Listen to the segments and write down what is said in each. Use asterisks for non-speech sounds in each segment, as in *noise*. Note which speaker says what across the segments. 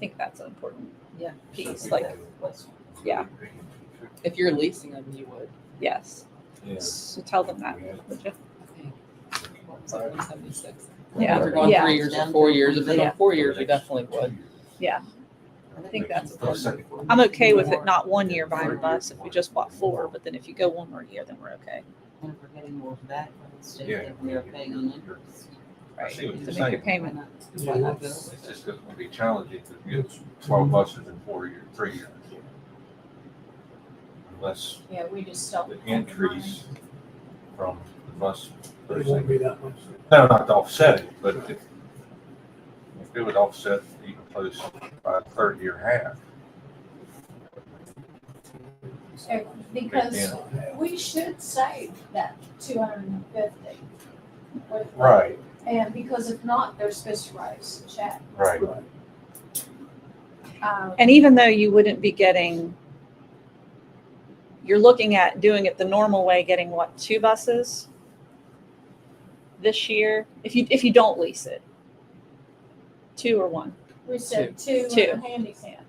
Speaker 1: think that's an important
Speaker 2: Yeah.
Speaker 1: piece. Like, yeah,
Speaker 2: If you're leasing them, you would.
Speaker 1: yes. So tell them that. would you?
Speaker 2: Okay. So 176. If
Speaker 1: Yeah,
Speaker 2: you're going
Speaker 1: yeah.
Speaker 2: three years or four years, if you're going
Speaker 1: Yeah.
Speaker 2: four years, you definitely would.
Speaker 1: I think that's important.
Speaker 3: second.
Speaker 1: I'm okay with it not one year buying a bus if we just bought four, but then if you go one more year, then we're okay.
Speaker 4: And if we're getting more back from the state
Speaker 3: Yeah.
Speaker 4: than we are paying on interest.
Speaker 1: Right.
Speaker 3: see what
Speaker 1: To
Speaker 3: you're
Speaker 1: make your
Speaker 3: saying.
Speaker 1: payment.
Speaker 4: Why not go?
Speaker 3: It's just gonna be challenging to get twelve buses in four years, three years. Unless
Speaker 5: Yeah, we just don't.
Speaker 3: the increase from the bus.
Speaker 6: It won't be that much.
Speaker 3: No, not to offset it, but if, if it would offset even close by a third year half.
Speaker 5: Uh, Because
Speaker 3: Yeah.
Speaker 5: we should save that two hundred and fifty.
Speaker 3: Right,
Speaker 5: And because if not, they're supposed to write us a check.
Speaker 3: right.
Speaker 5: Um,
Speaker 1: And even though you wouldn't be getting, you're looking at doing it the normal way, getting what, two buses this year? If you, if you don't lease it? Two or one?
Speaker 5: We said two
Speaker 1: Two.
Speaker 5: in a handy hand.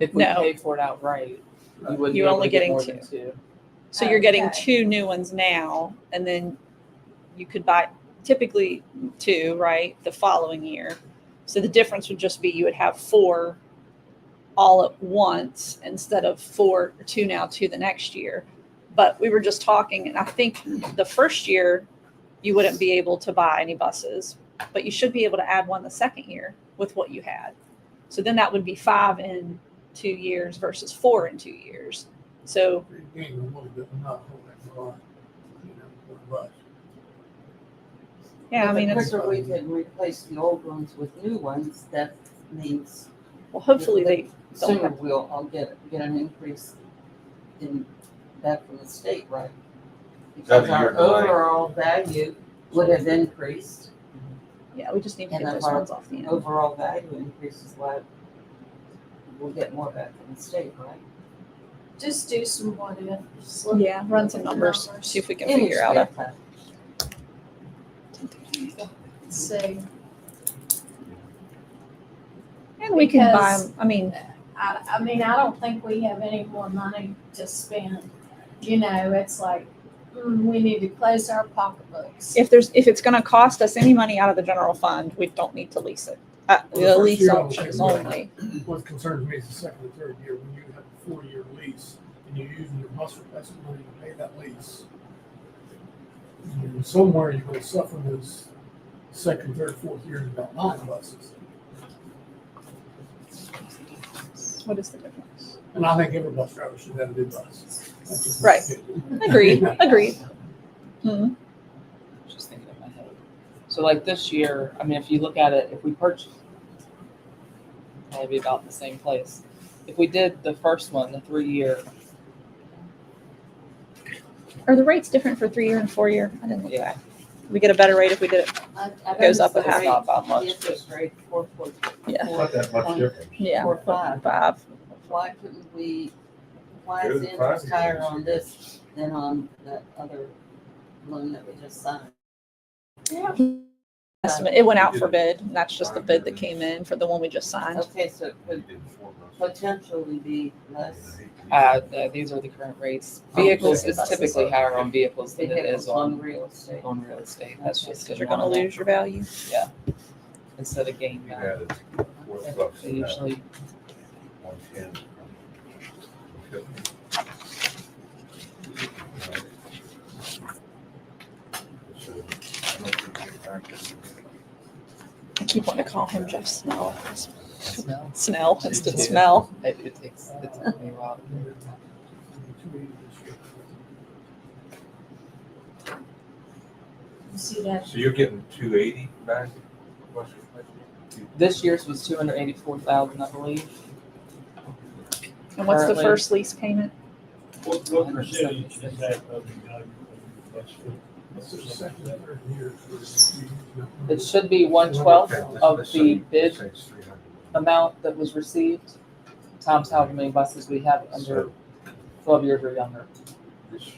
Speaker 2: If we
Speaker 1: No.
Speaker 2: pay for it outright, you wouldn't be
Speaker 1: You're
Speaker 2: able
Speaker 1: only
Speaker 2: to get
Speaker 1: getting
Speaker 2: more
Speaker 1: two.
Speaker 2: than two.
Speaker 1: So you're getting
Speaker 5: Okay.
Speaker 1: two new ones now, and then you could buy typically two, right, the following year. So the difference would just be you would have four all at once instead of four, two now, two the next year. But we were just talking, and I think the first year you wouldn't be able to buy any buses, but you should be able to add one the second year with what you had. So then that would be five in two years versus four in two years. So
Speaker 6: You ain't gonna want to go- not hold that for long, you know, for a bus.
Speaker 1: Yeah, I
Speaker 4: But
Speaker 1: mean,
Speaker 4: The
Speaker 1: it's,
Speaker 4: quicker we can replace the old ones with new ones, that means
Speaker 1: well, hopefully they, don't
Speaker 4: sooner
Speaker 1: have-
Speaker 4: we'll all get, get an increase in, back from the state, right? Because
Speaker 3: That'd be your
Speaker 4: our
Speaker 3: delay.
Speaker 4: overall value would have increased,
Speaker 1: yeah, we just need to
Speaker 4: And
Speaker 1: get
Speaker 4: that's
Speaker 1: those
Speaker 4: our
Speaker 1: ones off the end.
Speaker 4: overall value increases, why we'll get more back from the state, right?
Speaker 5: Just do some what ifs. look
Speaker 1: Yeah, run some
Speaker 5: at the
Speaker 1: numbers, see if we can figure out a.
Speaker 4: Illustrate that.
Speaker 5: See,
Speaker 1: And we can buy,
Speaker 5: Because-
Speaker 1: 'em- I mean,
Speaker 5: I, I mean, I don't think we have any more money to spend. You know, it's like, mm, we need to close our pocketbooks.
Speaker 1: if there's, if it's gonna cost us any money out of the general fund, we don't need to lease it. Uh,
Speaker 6: Well, the
Speaker 1: the
Speaker 6: first
Speaker 1: lease
Speaker 6: year I'll
Speaker 1: option is
Speaker 6: take mine.
Speaker 1: only,
Speaker 6: What concerns me is the second and third year, when you have a four-year lease and you're using your bus replacement money to pay that lease. And Somewhere you're gonna suffer those second, third, fourth years about nine buses.
Speaker 1: what is the
Speaker 4: *laughs*
Speaker 1: difference?
Speaker 6: And I think every bus driver should have a new bus. That's just my
Speaker 1: Right.
Speaker 6: opinion.
Speaker 4: *laughs*
Speaker 1: Agreed, agreed. Mhm.
Speaker 2: Just thinking in my head. So like this year, I mean, if you look at it, if we purchase, maybe about the same place. If we did the first one, the three year,
Speaker 1: Are the rates different for three-year and four-year? I didn't look
Speaker 2: Yeah.
Speaker 1: back. We get a better rate if we did it,
Speaker 4: I- I've
Speaker 1: Goes up a
Speaker 4: noticed the
Speaker 1: half.
Speaker 4: rate-
Speaker 2: Not by much,
Speaker 4: the Interest rate, four point
Speaker 1: Yeah.
Speaker 4: four,
Speaker 3: that
Speaker 4: much
Speaker 3: difference.
Speaker 1: yeah,
Speaker 4: four five.
Speaker 1: five.
Speaker 4: Why couldn't we, why
Speaker 3: Go
Speaker 4: is
Speaker 3: to
Speaker 4: the
Speaker 3: the
Speaker 4: interest
Speaker 3: private
Speaker 4: higher
Speaker 3: ones.
Speaker 4: on this than on that other loan that we just signed?
Speaker 5: Yeah.
Speaker 1: Estimate, it went out for bid, and that's just the bid that came in for the one we just signed.
Speaker 4: Okay, so it could potentially be less.
Speaker 2: uh, th- these are the current rates.
Speaker 1: Oh,
Speaker 2: Vehicles is typically higher on vehicles than it
Speaker 4: vehicles
Speaker 2: is on,
Speaker 4: real estate.
Speaker 2: on real estate. That's just because
Speaker 1: Cause you're gonna lose your value.
Speaker 2: Instead of gain back. They usually,
Speaker 1: I keep wanting to call him Jeff Snell.
Speaker 2: smell.
Speaker 1: Snell instead of smell.
Speaker 2: It, it takes, it took me a while.
Speaker 5: You see that
Speaker 3: So you're getting two eighty back?
Speaker 2: This year's was two hundred eighty-four thousand, I believe.
Speaker 1: And what's the
Speaker 2: Currently-
Speaker 1: first lease payment?
Speaker 7: What, what percentage is that of the value of the bus?
Speaker 6: That's the second and third year.
Speaker 2: It should be one twelfth of the bid amount that was received, times however many buses we have under
Speaker 3: So
Speaker 2: twelve years or younger.
Speaker 3: this year,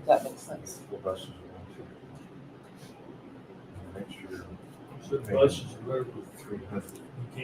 Speaker 2: If That makes
Speaker 3: I guess
Speaker 2: sense.
Speaker 3: four buses are going to. Next year,
Speaker 7: So the buses are over
Speaker 3: three hundred.
Speaker 7: you can't